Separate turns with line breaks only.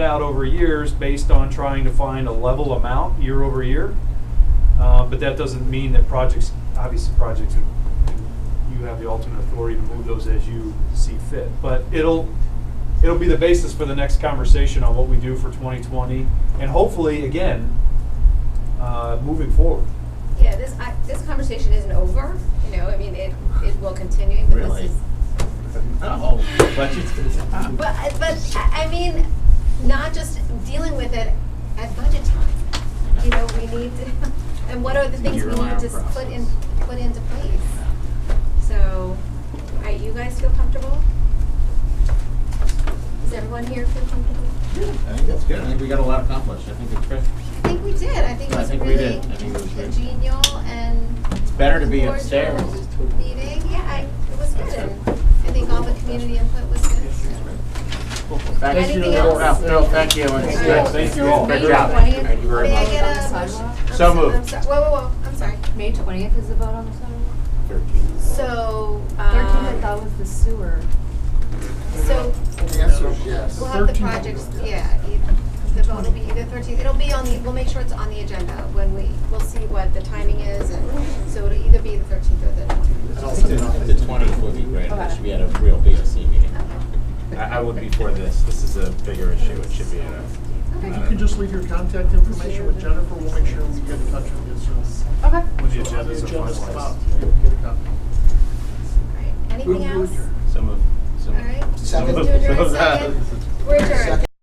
out over years based on trying to find a level amount year over year. Uh, But that doesn't mean that projects, obviously projects, you- you have the ultimate authority to move those as you see fit. But it'll, it'll be the basis for the next conversation on what we do for 2020 and hopefully, again, uh, moving forward.
Yeah, this, I, this conversation isn't over, you know, I mean, it, it will continue, but
Really? Oh,
this is.
No, but it's gonna stop.
But, I- but, I, I mean, not just dealing with it at budget time, you know, we need to, and what are the things we need to
Year-round
s- put in,
process.
put into place? So, all right, you guys feel comfortable? Does everyone here feel comfortable?
I think that's good. I think we got a lot accomplished. I think it's great.
I think we did, I think it
I
was a
think we
really
did. I think it was great.
congenial and
It's better to be
cordial
upstairs.
Meeting, yeah, I, it was good,
That's
and
good.
I think all the community input was good, so.
Thank you.
Anything else?
No, thank you. It's
Thank you.
great.
Thank you all.
Great
May
job.
20th.
Thank you very
May I
much.
get a?
On the sidewalk?
I'm
So
so- I'm
moved.
so- Whoa, whoa, whoa, I'm sorry.
May twentieth is the vote on the sidewalk?
Thirteen.
So,
Thirteenth, I
um,
thought was the sewer.
so
The answer is yes.
we'll have the projects, yeah, e- the vote will be either thirteenth, it'll be on the, we'll make sure it's on the agenda when we, we'll see what the timing is, and so it'll either be the thirteenth or the twentieth.
The twentieth would be great. We
Okay.
should be at a real BOC meeting. I, I would be for this. This is a bigger issue. It should be at a.
Okay.
If you can just leave your contact information with Jennifer, we'll make sure we get in touch with you soon.
Okay.
When the
So on
agendas are
agenda's
finalized.
about-